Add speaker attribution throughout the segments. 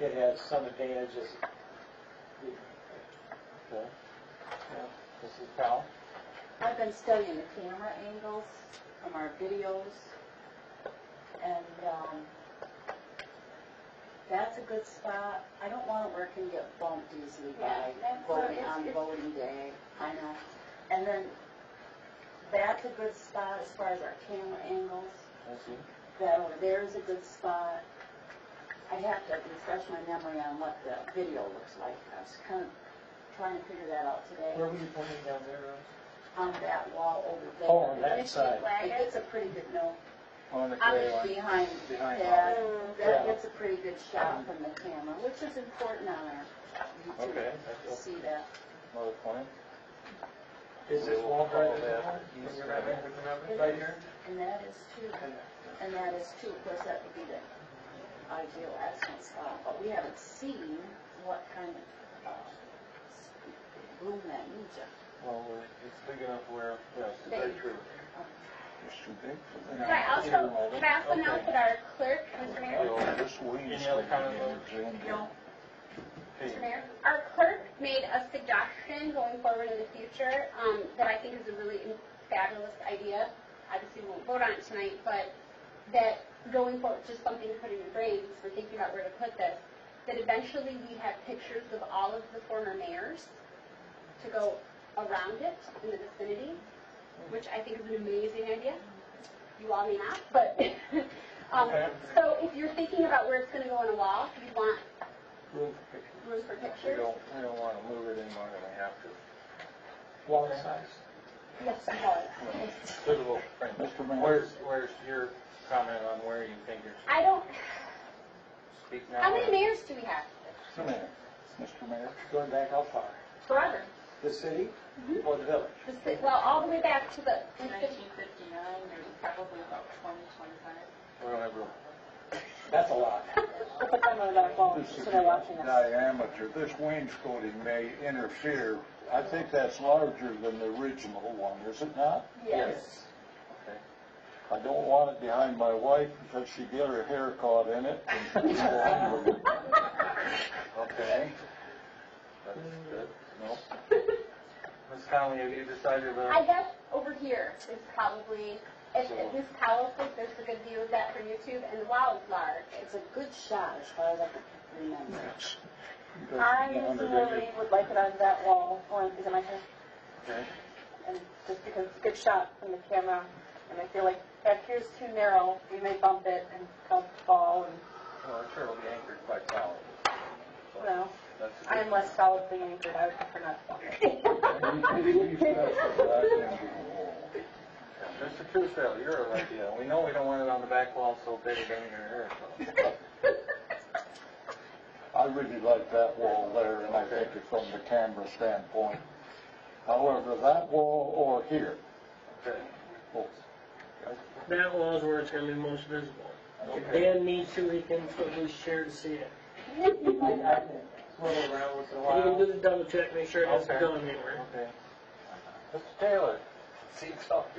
Speaker 1: it has some advantages.
Speaker 2: Okay.
Speaker 1: Yeah. Mrs. Powell?
Speaker 3: I've been studying the camera angles from our videos, and um, that's a good spot. I don't want it where it can get bumped easily by
Speaker 4: Yeah, that's what
Speaker 3: voting
Speaker 4: it is.
Speaker 3: on voting day, I know. And then, that's a good spot as far as our camera angles.
Speaker 1: I see.
Speaker 3: That over there is a good spot. I'd have to refresh my memory on what the video looks like. I was kind of trying to figure that out today.
Speaker 1: Where were you pointing down there? Rose?
Speaker 3: on that wall over there.
Speaker 1: Oh, on that
Speaker 4: Did she
Speaker 1: side.
Speaker 3: It
Speaker 4: flag it?
Speaker 3: gets a pretty good, no,
Speaker 2: On the
Speaker 3: I'm
Speaker 2: gray one.
Speaker 3: behind
Speaker 2: Behind
Speaker 3: that.
Speaker 1: Yeah.
Speaker 3: That gets a pretty good shot from the camera, which is important on our YouTube
Speaker 2: Okay,
Speaker 3: to see that.
Speaker 2: another point.
Speaker 1: Is this wall right
Speaker 2: Yeah.
Speaker 1: there? Do you remember, do you remember
Speaker 3: It
Speaker 1: right
Speaker 3: is.
Speaker 1: here?
Speaker 3: And that is too, and that is too, of course, that would be the ideal excellent spot, but we haven't seen what kind of, uh, s- room that needs it.
Speaker 1: Well, it's big enough where, yes,
Speaker 3: They- very
Speaker 1: true.
Speaker 2: It's too big for
Speaker 4: Can I also, can I also announce that our clerk, Mr. Mayor,
Speaker 2: This wing is
Speaker 1: Any other
Speaker 2: gonna
Speaker 1: comment?
Speaker 2: be zoomed in.
Speaker 3: No.
Speaker 4: Mr. Mayor, our clerk made a suggestion going forward in the future, um, that I think is a really fabulous idea. Obviously, we won't vote on it tonight, but that going forward, just something to put in your brains, we're thinking about where to put this, that eventually we have pictures of all of the former mayors to go around it in the vicinity, which I think is an amazing idea. You all may not, but, um, so if you're thinking about where it's gonna go on a wall, if you want
Speaker 1: Room
Speaker 4: room for
Speaker 2: We
Speaker 4: pictures.
Speaker 2: don't, we don't wanna move it any more than we have to.
Speaker 1: Wall size.
Speaker 3: Yes, it does.
Speaker 5: suitable frame.
Speaker 2: Mr. Mayor.
Speaker 5: Where's, where's your comment on where you think you're
Speaker 4: I don't,
Speaker 5: speaking
Speaker 4: how
Speaker 5: now?
Speaker 4: many mayors do we have?
Speaker 2: Mr. Mayor. Mr. Mayor.
Speaker 1: Going back how far?
Speaker 4: Forever.
Speaker 1: The city or the village?
Speaker 4: The ci- Well, all the way back to the,
Speaker 3: there's probably about twenty, twenty-five.
Speaker 5: We don't have room.
Speaker 1: That's a lot.
Speaker 3: Put them on their phones,
Speaker 2: This is
Speaker 3: so they're watching us.
Speaker 2: diameter, this wainscoting may interfere. I think that's larger than the original one, is it not?
Speaker 3: Yes.
Speaker 2: I don't want it behind my wife because she get her hair caught in it. Okay.
Speaker 5: That's good.
Speaker 2: No.
Speaker 5: Ms. Conley, have you decided
Speaker 4: I
Speaker 5: on,
Speaker 4: guess over here is probably, if, if this towel fits, there's a good view of that for YouTube, and wow, it's large.
Speaker 3: It's a good shot as far as I can remember.
Speaker 6: I usually would like it on that wall, or is it my turn?
Speaker 5: Okay.
Speaker 6: And just because it's a good shot from the camera, and I feel like if that here's too narrow, we may bump it and cause it to fall, and,
Speaker 5: well, I'm sure it'll be anchored by towels.
Speaker 6: you know,
Speaker 5: That's a good-
Speaker 6: I'm less solidly anchored, I would prefer not to bump it.
Speaker 5: Mr. Truesdale, you're a right deal. We know we don't want it on the back wall so big it doesn't interfere, so.
Speaker 2: I really like that wall there, and I think it from the camera standpoint. However, that wall or here,
Speaker 5: Okay.
Speaker 2: oh,
Speaker 7: That wall is where it's gonna be most visible. If
Speaker 5: Okay.
Speaker 7: Dan needs to, he can at least share to see it.
Speaker 1: I, I can swirl around once in a
Speaker 7: And You can do
Speaker 1: while.
Speaker 7: the double check, make sure it hasn't
Speaker 5: Okay.
Speaker 7: gone anywhere.
Speaker 5: Okay. Mr. Taylor, seat's up.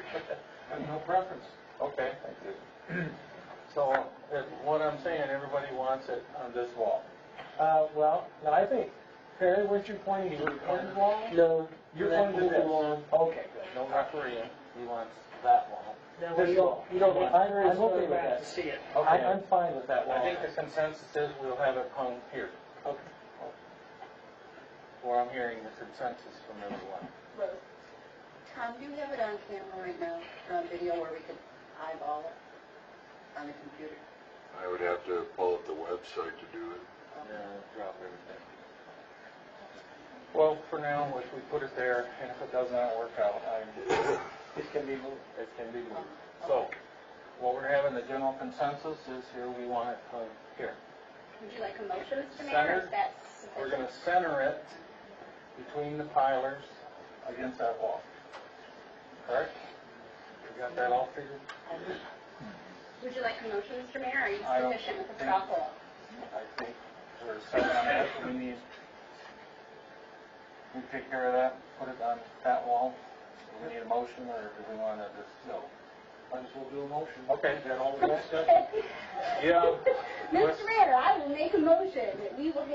Speaker 1: I have no preference.
Speaker 5: Okay. So, if- what I'm saying, everybody wants it on this wall.
Speaker 1: Uh, well, no, I think, Perry, weren't you pointing to the corner wall?
Speaker 7: No.
Speaker 1: You're
Speaker 7: that
Speaker 1: pointing to
Speaker 7: whole
Speaker 1: this.
Speaker 7: wall.
Speaker 1: Okay, good.
Speaker 5: No refereeing. He wants that wall.
Speaker 7: That
Speaker 1: This
Speaker 7: way you
Speaker 1: wall.
Speaker 7: don't, you don't want
Speaker 1: I'm- I'm okay
Speaker 7: others
Speaker 1: with
Speaker 7: going back
Speaker 1: that.
Speaker 7: to see it.
Speaker 1: I, I'm fine with that wall.
Speaker 5: I think the consensus is we'll have it hung here.
Speaker 1: Okay.
Speaker 5: Well, I'm hearing the consensus from everyone.
Speaker 3: Tom, do you have it on camera right now, or on video where we could eyeball it on the computer?
Speaker 8: I would have to pull up the website to do it.
Speaker 5: Yeah, drop everything. Well, for now, if we put it there, and if it does not work out, I'm,
Speaker 1: It can be moved.
Speaker 5: it can be moved. So, what we're having, the general consensus is here, we want it hung here.
Speaker 4: Would you like a motion, Mr. Mayor, or is that sufficient?
Speaker 5: We're gonna center it between the pilers against that wall. Correct? We got that all figured?
Speaker 4: Would you like a motion, Mr. Mayor, or are you
Speaker 5: I don't
Speaker 4: sufficient with the
Speaker 5: think-
Speaker 4: straw poll?
Speaker 5: I think we're set on that, we need, we take care of that, put it on that wall. Do we need a motion, or do we want to just, no? Might as well do a motion.
Speaker 9: Okay.
Speaker 5: Get all the discussion.
Speaker 9: Yeah.
Speaker 4: Mr. Ritter, I will make a motion that we will